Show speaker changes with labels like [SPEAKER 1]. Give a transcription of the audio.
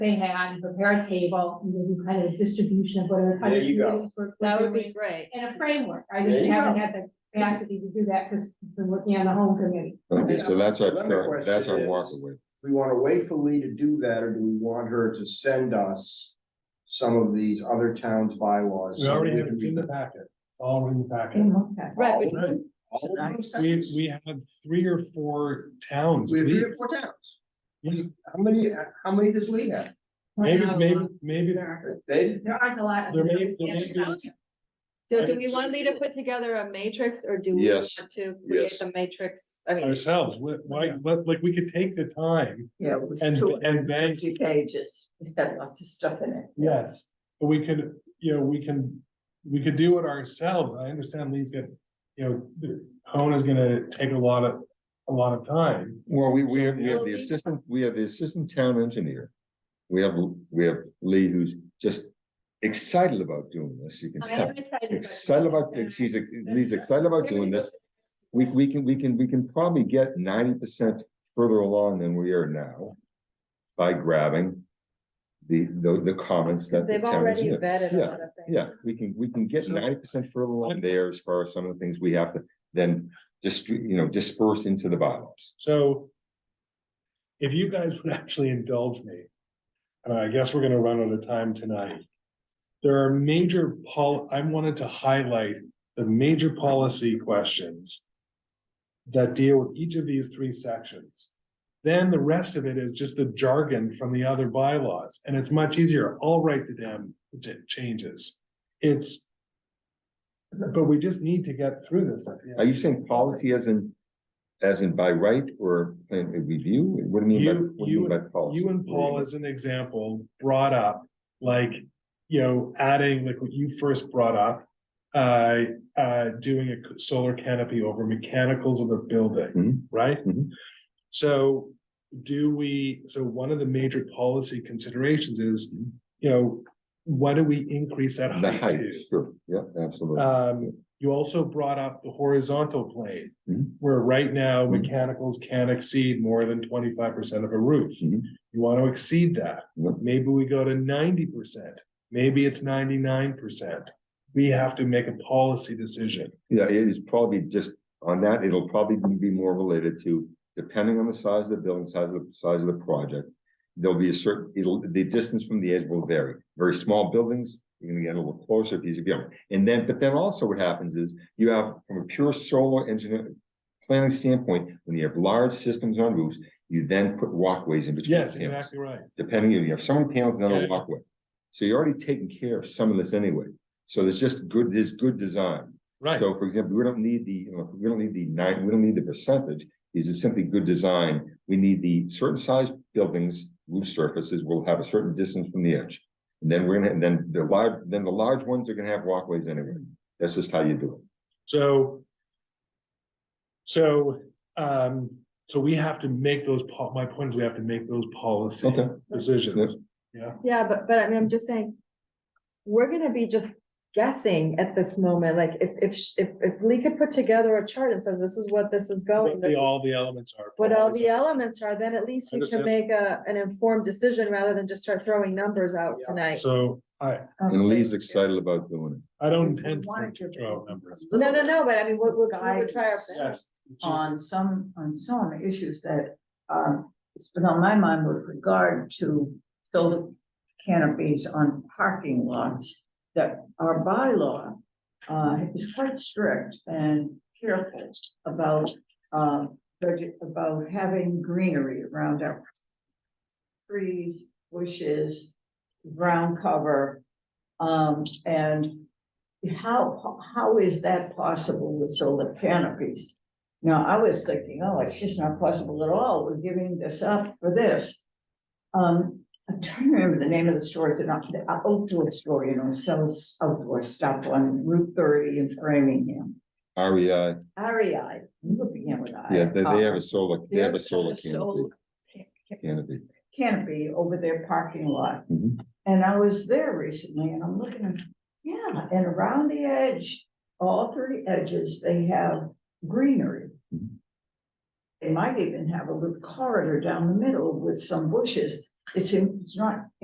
[SPEAKER 1] they had, prepare a table, and do kind of distribution of whatever.
[SPEAKER 2] There you go.
[SPEAKER 1] committees were-
[SPEAKER 3] That would be great.
[SPEAKER 1] In a framework, I
[SPEAKER 2] There
[SPEAKER 1] just
[SPEAKER 2] you
[SPEAKER 1] haven't had the capacity to do that, because I've been working on the home committee.
[SPEAKER 4] Okay, so that's our,
[SPEAKER 2] So then the
[SPEAKER 4] current- that's our
[SPEAKER 2] question is-
[SPEAKER 4] walkaway.
[SPEAKER 2] we wanna wait for Lee to do that, or do we want her to send us some of these other towns' bylaws?
[SPEAKER 5] We
[SPEAKER 2] so
[SPEAKER 5] already
[SPEAKER 2] we
[SPEAKER 5] have,
[SPEAKER 2] can
[SPEAKER 5] it's
[SPEAKER 2] read
[SPEAKER 5] in the
[SPEAKER 2] them?
[SPEAKER 5] packet, it's all in the packet.
[SPEAKER 1] Okay.
[SPEAKER 3] Right, but-
[SPEAKER 2] All of them? All of those
[SPEAKER 5] We,
[SPEAKER 2] towns?
[SPEAKER 5] we have three or four towns.
[SPEAKER 2] We have three or
[SPEAKER 5] least.
[SPEAKER 2] four towns.
[SPEAKER 5] Yeah.
[SPEAKER 2] How many, how many does Lee have?
[SPEAKER 5] Maybe,
[SPEAKER 1] Not a
[SPEAKER 5] maybe,
[SPEAKER 1] lot.
[SPEAKER 5] maybe,
[SPEAKER 1] There
[SPEAKER 2] They,
[SPEAKER 1] there aren't a lot. of
[SPEAKER 5] There may-
[SPEAKER 1] committees
[SPEAKER 5] there may
[SPEAKER 1] in
[SPEAKER 5] be-
[SPEAKER 1] town.
[SPEAKER 3] So do we want Lee to put together a matrix or do we
[SPEAKER 4] Yes.
[SPEAKER 3] want to create
[SPEAKER 4] Yes.
[SPEAKER 3] the matrix? I mean,
[SPEAKER 5] ourselves, wh- why, but like, we could take the time,
[SPEAKER 6] Yeah, it was
[SPEAKER 5] And-
[SPEAKER 6] two
[SPEAKER 5] and
[SPEAKER 6] and
[SPEAKER 5] then-
[SPEAKER 6] fifty pages, it's got lots of stuff in it.
[SPEAKER 5] yes. But we could, you know, we can, we could do it ourselves, I understand Lee's gonna, you know, the- Hona's gonna take a lot of, a lot of time.
[SPEAKER 4] Well, we, we have, we have
[SPEAKER 3] Well, we-
[SPEAKER 4] the assistant, we have the assistant town engineer. We have, we have Lee who's just excited about doing this, you can
[SPEAKER 1] I
[SPEAKER 4] tell.
[SPEAKER 1] am excited. about
[SPEAKER 4] Excited about,
[SPEAKER 1] this,
[SPEAKER 4] she's,
[SPEAKER 1] and
[SPEAKER 4] ex- Lee's excited about doing this. We, we can, we can, we can probably get ninety percent further along than we are now. By grabbing the, the, the comments that the
[SPEAKER 3] they've
[SPEAKER 4] town
[SPEAKER 3] already
[SPEAKER 4] engineer.
[SPEAKER 3] vetted a
[SPEAKER 4] Yeah,
[SPEAKER 3] lot of things.
[SPEAKER 4] Yeah, we can, we can get
[SPEAKER 5] So-
[SPEAKER 4] ninety percent further along there as far as some of the things we have to then just, you know, disperse into the bylaws.
[SPEAKER 5] So. If you guys would actually indulge me, and I guess we're gonna run out of time tonight. There are major pol, I wanted to highlight the major policy questions. That deal with each of these three sections. Then the rest of it is just the jargon from the other bylaws, and it's much easier. I'll write the damn j- changes. It's. But we just need to get through this.
[SPEAKER 4] Are you saying policy as in, as in by right or plan review? What do you mean by,
[SPEAKER 5] You-
[SPEAKER 4] what do you mean by policy?
[SPEAKER 5] you and Paul as an example brought up, like, you know, adding like what you first brought up. Uh, uh, doing a solar canopy over mechanicals of a building,
[SPEAKER 4] Mhm.
[SPEAKER 5] right?
[SPEAKER 4] Mhm.
[SPEAKER 5] So do we, so one of the major policy considerations is, you know, what do we increase that
[SPEAKER 4] Mm-hmm. The
[SPEAKER 5] height
[SPEAKER 4] height,
[SPEAKER 5] to?
[SPEAKER 4] sure, yeah, absolutely.
[SPEAKER 5] Um, you also brought up the horizontal plane,
[SPEAKER 4] Mhm.
[SPEAKER 5] where right now
[SPEAKER 4] Mhm.
[SPEAKER 5] mechanicals can exceed more than twenty-five percent of a roof.
[SPEAKER 4] Mhm.
[SPEAKER 5] You want to exceed that.
[SPEAKER 4] Yep.
[SPEAKER 5] Maybe we go to ninety percent, maybe it's ninety-nine percent. We have to make a policy decision.
[SPEAKER 4] Yeah, it is probably just on that, it'll probably be more related to, depending on the size of the building, size of, the size of the project. There'll be a certain, it'll, the distance from the edge will vary. Very small buildings, you're gonna get a little closer, if you beyond. And then, but then also what happens is you have, from a pure solar engineer planning standpoint, when you have large systems on roofs, you then put walkways in between.
[SPEAKER 5] Yes,
[SPEAKER 4] the panels.
[SPEAKER 5] exactly right.
[SPEAKER 4] Depending, if you have so many panels then a
[SPEAKER 5] Yeah.
[SPEAKER 4] walkway. So you're already taking care of some of this anyway. So there's just good, there's good design.
[SPEAKER 5] Right,
[SPEAKER 4] So for example, we don't need the, you know, we don't need the nine, we don't need the percentage, these are simply good design. We need the certain size buildings, roof surfaces will have a certain distance from the edge. And then we're gonna, and then the large, then the large ones are gonna have walkways anyway. That's just how you do it.
[SPEAKER 5] so. So, um, so we have to make those, po- my point is we have to make those policy
[SPEAKER 4] Okay.
[SPEAKER 5] decisions.
[SPEAKER 3] Yeah, but, but I mean, I'm just saying, we're gonna be just guessing at this moment, like if, if, sh- if, if Lee could put together a chart and says, this is what this is going.
[SPEAKER 5] What
[SPEAKER 3] Oh, this
[SPEAKER 5] the,
[SPEAKER 3] is
[SPEAKER 5] all the elements are.
[SPEAKER 3] What all the
[SPEAKER 5] policy.
[SPEAKER 3] elements are, then at least we can
[SPEAKER 5] Understand.
[SPEAKER 3] make a, an informed decision rather than just start throwing numbers out tonight.
[SPEAKER 5] So I,
[SPEAKER 4] And Lee's excited about doing it.
[SPEAKER 5] I don't
[SPEAKER 6] We
[SPEAKER 5] intend to
[SPEAKER 6] wanna give
[SPEAKER 5] throw out
[SPEAKER 6] them
[SPEAKER 5] numbers.
[SPEAKER 6] a
[SPEAKER 3] No, no,
[SPEAKER 6] little
[SPEAKER 3] no, but I mean, we'll, we'll, we would try our
[SPEAKER 6] guidance
[SPEAKER 3] best.
[SPEAKER 6] On some, on some issues that are, it's been on my mind with regard to solar canopies on parking lots. That our bylaw, uh, is quite strict and careful about, uh, budget, about having greenery around our. Trees, bushes, ground cover, um, and how, how is that possible with solar canopies? Now, I was thinking, oh, it's just not possible at all, we're giving this up for this. Um, I'm trying to remember the name of the stores, and not, the outdoor store, you know, sells outdoor stuff on Route thirty in Framingham.
[SPEAKER 4] REI,
[SPEAKER 6] REI, you would begin with I. Uh,
[SPEAKER 4] yeah, E they, they have a solar, they have
[SPEAKER 6] They're
[SPEAKER 4] a solar canopy,
[SPEAKER 6] solar ca-
[SPEAKER 4] canopy.
[SPEAKER 6] canopy over their parking lot.
[SPEAKER 4] Mhm.
[SPEAKER 6] And I was there recently and I'm looking, and, yeah, and around the edge, all three edges, they have greenery.
[SPEAKER 4] Mhm.
[SPEAKER 6] They might even have a little corridor down the middle with some bushes. It's, it's not